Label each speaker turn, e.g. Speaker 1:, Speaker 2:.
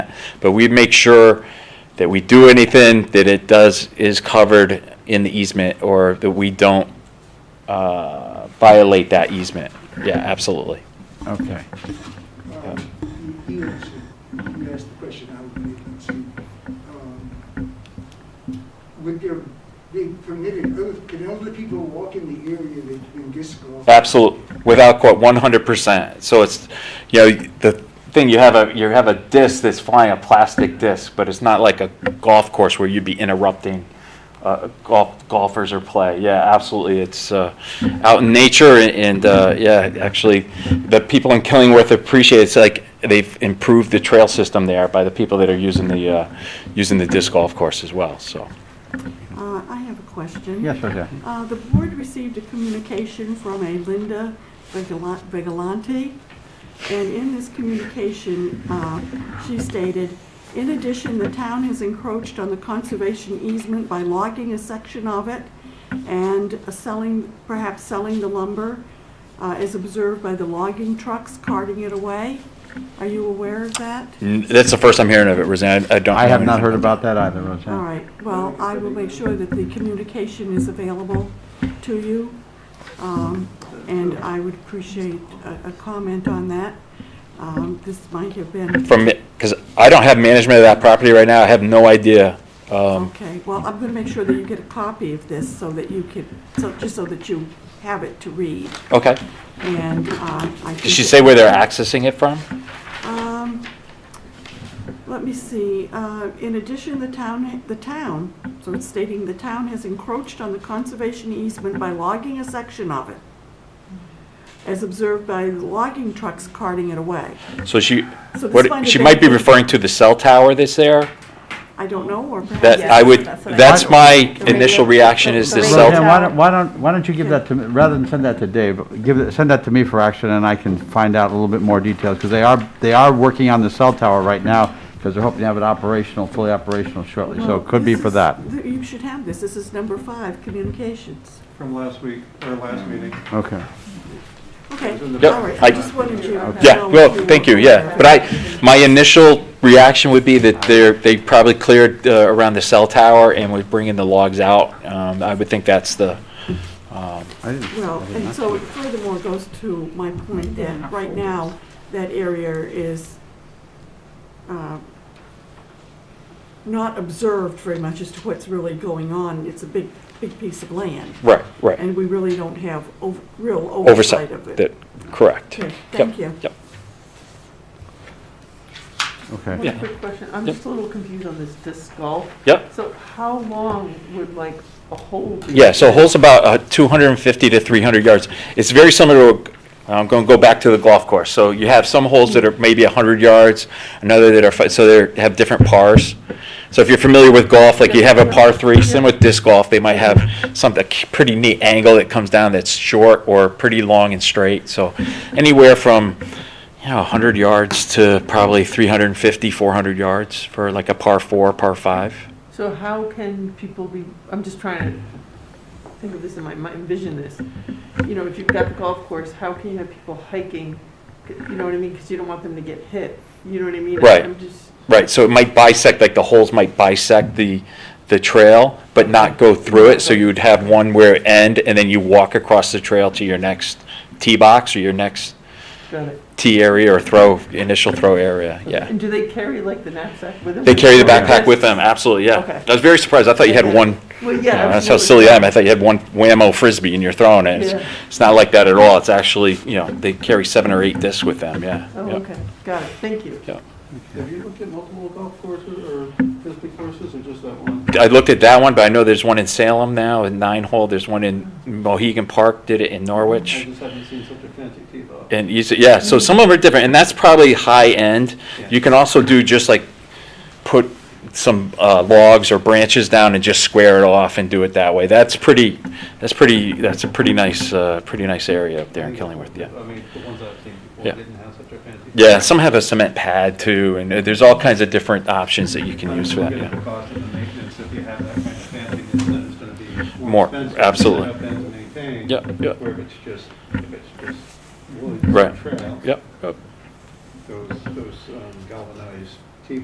Speaker 1: but we make sure that we do anything that it does, is covered in the easement, or that we don't uh, violate that easement. Yeah, absolutely.
Speaker 2: Okay.
Speaker 3: Um, You answered, you asked the question I would make, let's see. Um, Would there be permitted, oth- can elderly people walk in the area that's been disc golf?
Speaker 1: Absolutely, without quote, one hundred percent. So it's, you know, the thing, you have a, you have a disc that's flying, a plastic disc, but it's not like a golf course where you'd be interrupting uh, golf, golfers or play. Yeah, absolutely. It's uh, out in nature and- and, uh, yeah, actually, the people in Killingworth appreciate, it. it's like, they've improved the trail system there by the people that are using the, uh, using the disc golf course as well, so.
Speaker 4: Uh, I have a question.
Speaker 2: Yes, Roseanne?
Speaker 4: Uh, The board received a communication from a Linda Vigala- Vigilante, and in this communication, uh, she stated, "In addition, the town has encroached on the conservation easement by logging a section of it and selling, perhaps selling the lumber uh, as observed by the logging trucks carting it away. Are you aware of that?"
Speaker 1: N- That's the first I'm hearing of it, Roseanne. I I don't.
Speaker 2: I
Speaker 1: know
Speaker 2: have not
Speaker 1: anything
Speaker 2: heard about that either, Roseanne.
Speaker 4: All right, well, I will make sure that the communication is available to you, um, and I would appreciate a a comment on that. Um, This might have been,
Speaker 1: from, because I don't have management of that property right now, I have no idea. Um,
Speaker 4: okay, well, I'm going to make sure that you get a copy of this so that you can, so- just so that you have it to read,
Speaker 1: Okay,
Speaker 4: and uh, I think...
Speaker 1: did she say where they're accessing it from?
Speaker 4: Um, Let me see, uh, in addition, the town, the town, so it's stating the town has encroached on the conservation easement by logging a section of it, as observed by logging trucks carting it away.
Speaker 1: So she,
Speaker 4: So this might
Speaker 1: what,
Speaker 4: have
Speaker 1: she
Speaker 4: been-
Speaker 1: might be referring to the cell tower that's there?
Speaker 4: I don't know, or perhaps.
Speaker 1: That, I would,
Speaker 5: that's what I-
Speaker 1: that's my initial
Speaker 5: radio-
Speaker 1: reaction is
Speaker 5: the
Speaker 1: the
Speaker 5: radio
Speaker 2: Roseanne,
Speaker 1: cell.
Speaker 5: tower.
Speaker 2: why don't, why don't, why don't you give that to, me rather than send that to Dave, give it, send that to me for action, and I can find out a little bit more details, because they are, they are working on the cell tower right now, because they're hoping to have it operational, fully operational shortly, so
Speaker 4: Well,
Speaker 2: it could be
Speaker 4: this
Speaker 2: for
Speaker 4: is-
Speaker 2: that.
Speaker 4: th- You should have this, this is number five, communications.
Speaker 6: from last week, or
Speaker 1: Mm.
Speaker 6: last meeting.
Speaker 2: Okay.
Speaker 4: Okay,
Speaker 1: Yep,
Speaker 4: all right,
Speaker 1: I-
Speaker 4: I just wanted you. to
Speaker 1: Yeah,
Speaker 4: know
Speaker 1: well,
Speaker 4: if were
Speaker 1: thank you,
Speaker 4: aware
Speaker 1: yeah,
Speaker 4: of
Speaker 1: but
Speaker 4: it.
Speaker 1: I, my initial reaction would be that they're, they probably cleared uh, around the cell tower and was bringing the logs out. Um, I would think that's the, um,
Speaker 2: I didn't-
Speaker 4: Well,
Speaker 2: I did
Speaker 4: and
Speaker 2: not-
Speaker 4: so it furthermore goes to my point that right now, that area is uh, not observed very much as to what's really going on. It's a big, big piece of land,
Speaker 1: right, right,
Speaker 4: and we really don't have ov- real
Speaker 1: oversight,
Speaker 4: oversight of it.
Speaker 1: that, correct.
Speaker 4: Okay,
Speaker 1: Yep,
Speaker 4: Thank you.
Speaker 1: Yep.
Speaker 2: Okay.
Speaker 1: Yeah.
Speaker 5: One quick question, I'm
Speaker 1: Yep.
Speaker 5: just a little confused on this disc golf.
Speaker 1: Yep.
Speaker 5: So how long would like a hole be?
Speaker 1: Yeah, so hole's about uh, 250 to 300 yards. It's very similar to, a- I'm going to go back to the golf course. So you have some holes that are maybe 100 yards, another that are, fi- so they have different pars. So if you're familiar with golf, like you have a par three, similar to disc golf, they might have some, a k- pretty neat angle that comes down that's short or pretty long and straight. So anywhere from, you know, 100 yards to probably 350, 400 yards for like a par four, par five.
Speaker 5: So how can people be, I'm just trying to think of this in my mind, envision this. You know, if you've got the golf course, how can you have people hiking, you know what I mean, because you don't want them to get hit, you know what I mean?
Speaker 1: Right.
Speaker 5: I'm just,
Speaker 1: Right, so it might bisect, like the holes might bisect the, the trail, but not go through it, so you would have one where it end, and then you walk across the trail to your next tee box or your next
Speaker 5: got it.
Speaker 1: tee area or throw, initial throw area, yeah.
Speaker 5: And do they carry like the knapsack with them?
Speaker 1: They carry the
Speaker 5: Or
Speaker 1: backpack
Speaker 5: just-
Speaker 1: with them, absolutely, yeah.
Speaker 5: Okay.
Speaker 1: I was very surprised, I thought you had one,
Speaker 5: Well,
Speaker 1: you
Speaker 5: yeah.
Speaker 1: know,
Speaker 5: I was
Speaker 1: that's how
Speaker 5: really-
Speaker 1: silly I am, I thought you had one whammo frisbee and you're throwing it. It's-
Speaker 5: Yeah.
Speaker 1: It's not like that at all, it's actually, you know, they carry seven or eight discs with them, yeah.
Speaker 5: Oh,
Speaker 1: yeah,
Speaker 5: okay, got it, thank you.
Speaker 1: yeah.
Speaker 6: Have you looked at multiple golf courses or frisbee courses or just that one?
Speaker 1: I looked at that one, but I know there's one in Salem now, in nine hole, there's one in Mohegan Park, did it in
Speaker 6: I
Speaker 1: Norwich.
Speaker 6: just haven't seen such a fancy tee box.
Speaker 1: And you, s- yeah, so some of them are different, and that's probably high-end. You can also do just like, put some uh, logs or branches down and just square it off and do it that way. That's pretty, that's pretty, that's a pretty nice, uh, pretty nice area up there in Killingworth, yeah.
Speaker 6: I mean, the ones I've seen before
Speaker 1: Yeah.
Speaker 6: didn't have such a fancy. tee
Speaker 1: Yeah,
Speaker 6: box.
Speaker 1: some have a cement pad too, and uh, there's all kinds of different options that you can
Speaker 6: I'm
Speaker 1: use for that,
Speaker 6: looking at the
Speaker 1: yeah.
Speaker 6: cost and the maintenance, if you have that kind of fancy, then it's gonna be
Speaker 1: More,
Speaker 6: more expensive.
Speaker 1: absolutely.
Speaker 6: To have that maintained.
Speaker 1: Yeah, yeah.
Speaker 6: Where if it's just, if it's just woods and
Speaker 1: Right.
Speaker 6: trail.
Speaker 1: Yep, yep.
Speaker 6: Those, those, um,